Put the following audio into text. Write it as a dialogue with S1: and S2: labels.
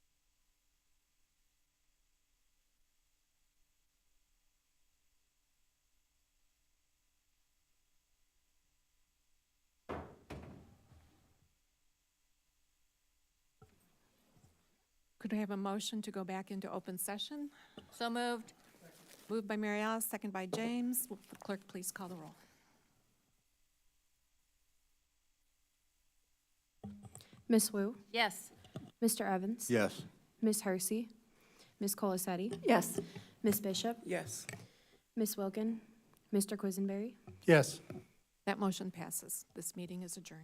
S1: Could I have a motion to go back into open session?
S2: So moved.
S1: Moved by Mary Alice, second by James. Will the Clerk, please call the roll.
S3: Miss Wu,
S2: Yes.
S3: Mr. Evans?
S4: Yes.
S3: Miss Hersey? Miss Colasetti?
S5: Yes.
S3: Miss Bishop?
S5: Yes.
S3: Miss Wilkin? Mr. Quisenberry?
S4: Yes.
S1: That motion passes. This meeting is adjourned.